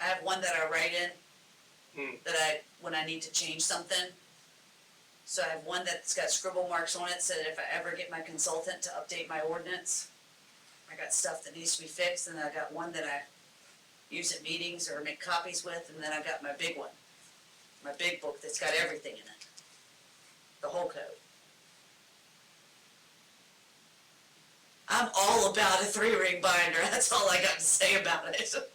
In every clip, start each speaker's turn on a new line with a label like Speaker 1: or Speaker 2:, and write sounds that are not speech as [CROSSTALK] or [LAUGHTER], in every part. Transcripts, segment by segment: Speaker 1: I have one that I write
Speaker 2: Hmm.
Speaker 1: in, that I, when I need to change something. So I have one that's got scribble marks on it, so that if I ever get my consultant to update my ordinance, I got stuff that needs to be fixed, and I got one that I use at meetings or make copies with, and then I got my big one. My big book that's got everything in it, the whole code. I'm all about a three ring binder. [LAUGHS] That's all I got to say about it. [LAUGHS]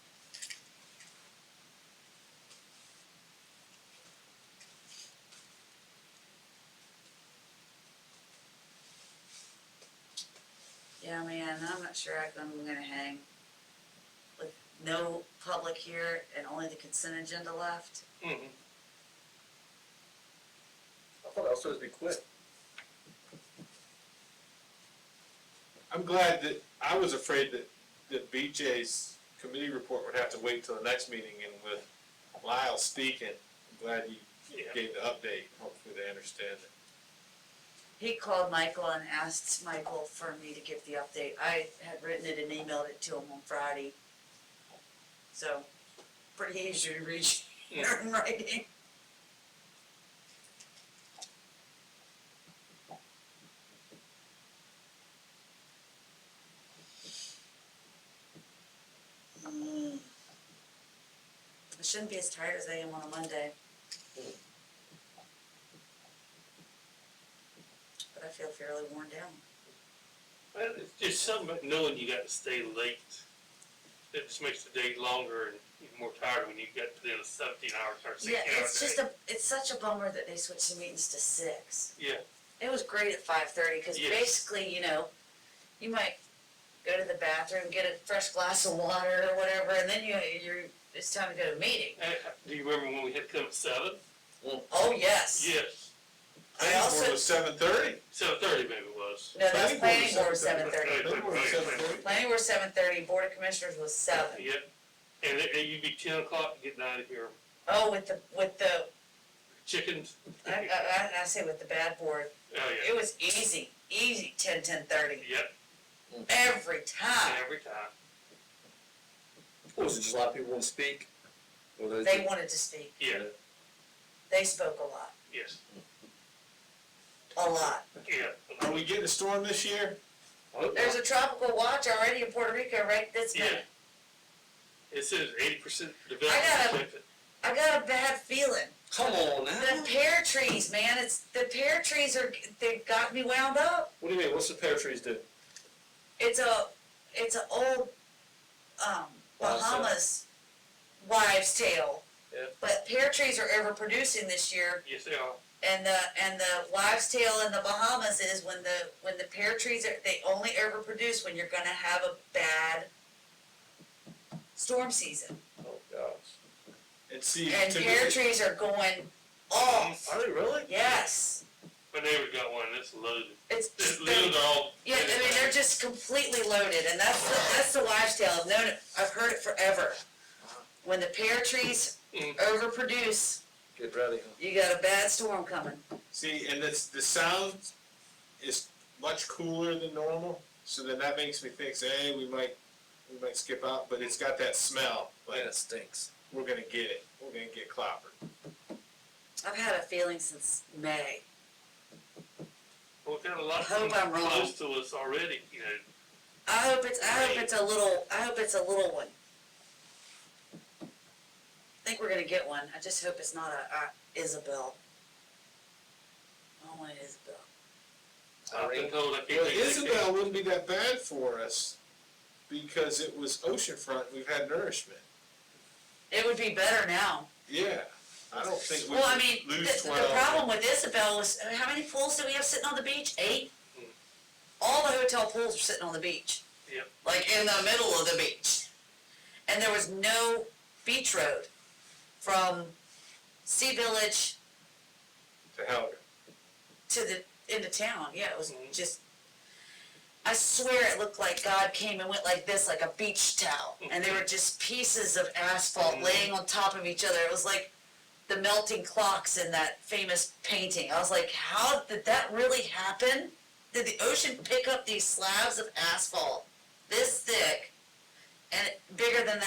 Speaker 1: Yeah, man, I'm not sure I- I'm gonna hang with no public here and only the consent agenda left.
Speaker 2: Mhm. I thought I was supposed to be quick. I'm glad that, I was afraid that, that BJ's committee report would have to wait till the next meeting and with Lyle speaking, I'm glad you gave the update, hopefully they understand it.
Speaker 1: He called Michael and asked Michael for me to give the update. I had written it and emailed it to him on Friday. So, pretty easy to reach [LAUGHS]
Speaker 2: Yeah.
Speaker 1: in writing. Mm. I shouldn't be as tired as I am on a Monday. But I feel fairly worn down.
Speaker 3: Well, it's just something about knowing you got to stay late. It just makes the day longer and you're more tired when you get to the end of seventeen hours or sixteen
Speaker 1: Yeah,
Speaker 3: hours.
Speaker 1: it's just a, it's such a bummer that they switched the meetings to six.
Speaker 3: Yeah.
Speaker 1: It was great at five thirty, cause
Speaker 3: Yes.
Speaker 1: basically, you know, you might go to the bathroom, get a fresh glass of water or whatever, and then you, you're, it's time to go to a meeting.
Speaker 3: Uh, Do you remember when we had to come at seven?
Speaker 1: Oh, yes.
Speaker 3: Yes,
Speaker 1: I
Speaker 2: Planning board
Speaker 1: also-
Speaker 2: was seven thirty.
Speaker 3: seven thirty maybe it was.
Speaker 1: No, that's planning
Speaker 2: Planning board
Speaker 1: board
Speaker 2: was
Speaker 1: seven thirty.
Speaker 2: Planning board was seven thirty.
Speaker 1: Planning board seven thirty, board of commissioners was seven.
Speaker 3: Yep. And it, it- you'd be ten o'clock getting out of here.
Speaker 1: Oh, with the, with the,
Speaker 3: Chickens.
Speaker 1: I,
Speaker 3: Oh,
Speaker 1: I, I say with the bad board,
Speaker 3: yeah.
Speaker 1: it was easy, easy ten, ten thirty,
Speaker 3: Yep,
Speaker 1: every time.
Speaker 3: every time.
Speaker 4: Was it just a lot of people wouldn't speak? Or those-
Speaker 1: They wanted to speak,
Speaker 3: Yeah,
Speaker 1: they spoke a lot,
Speaker 3: yes,
Speaker 1: a lot.
Speaker 3: yeah.
Speaker 2: Are we getting a storm this year?
Speaker 4: Oh,
Speaker 1: There's a tropical watch already in Puerto Rico right this
Speaker 3: Yeah.
Speaker 1: minute.
Speaker 3: It says eighty percent
Speaker 1: I
Speaker 3: development.
Speaker 1: got I got a bad feeling.
Speaker 4: Come on
Speaker 1: The
Speaker 3: Oh.
Speaker 4: now.
Speaker 1: pear trees, man, it's, the pear trees are, they've got me wound up.
Speaker 4: What do you mean? What's the pear trees do?
Speaker 1: It's a, it's a old, um,
Speaker 4: Wives' tale.
Speaker 1: Bahamas wives tale.
Speaker 4: Yeah.
Speaker 1: But pear trees are overproducing this year
Speaker 3: Yes, they are.
Speaker 1: and the, and the wives tale in the Bahamas is when the, when the pear trees are, they only overproduce when you're gonna have a bad storm season.
Speaker 4: Oh gosh.
Speaker 2: And see,
Speaker 1: And pear
Speaker 2: typically,
Speaker 1: trees are going off.
Speaker 4: Are they really?
Speaker 1: Yes,
Speaker 3: My neighbor got one, it's loaded.
Speaker 1: it's
Speaker 3: It
Speaker 1: just,
Speaker 3: leaves
Speaker 1: they-
Speaker 3: are all.
Speaker 1: yeah, I mean, they're just completely loaded, and that's the, that's the wives' tale, I've known it, I've heard it forever. When the pear trees
Speaker 3: Mm.
Speaker 1: overproduce,
Speaker 4: Get ready, huh?
Speaker 1: you got a bad storm coming.
Speaker 2: see, and it's, the sound is much cooler than normal, so then that makes me think, say, hey, we might, we might skip out, but it's got that smell, like,
Speaker 4: Man, it stinks.
Speaker 2: we're gonna get it, we're gonna get clobbered.
Speaker 1: I've had a feeling since May,
Speaker 3: We've got a lot of
Speaker 1: I hope
Speaker 3: them
Speaker 1: I'm wrong.
Speaker 3: close to us already, you know.
Speaker 1: I hope it's, I hope it's a little, I hope it's a little one. I think we're gonna get one, I just hope it's not a, a Isabel. I don't want an Isabel.
Speaker 3: I've been
Speaker 4: Irene?
Speaker 3: told I can't
Speaker 2: Well,
Speaker 3: make that
Speaker 2: Isabel wouldn't be that bad for us, because it was oceanfront, we've had nourishment,
Speaker 1: It would be better now.
Speaker 2: yeah, I don't think we
Speaker 1: Well, I mean,
Speaker 2: would
Speaker 1: the,
Speaker 2: lose twelve.
Speaker 1: the problem with Isabel is, uh, how many pools do we have sitting on the beach? Eight?
Speaker 2: Hmm.
Speaker 3: Mm.
Speaker 1: All the hotel pools are sitting on the beach.
Speaker 3: Yep.
Speaker 1: Like in the middle of the beach. And there was no beach road from Sea Village
Speaker 2: To help.
Speaker 1: to the, into town, yeah, it was
Speaker 3: Mhm.
Speaker 1: just, I swear it looked like God came and went like this, like a beach towel, and they were just pieces of asphalt
Speaker 3: Mhm.
Speaker 1: laying on top of each other, it was like the melting clocks in that famous painting, I was like, how did that really happen? Did the ocean pick up these slabs of asphalt this thick and bigger than that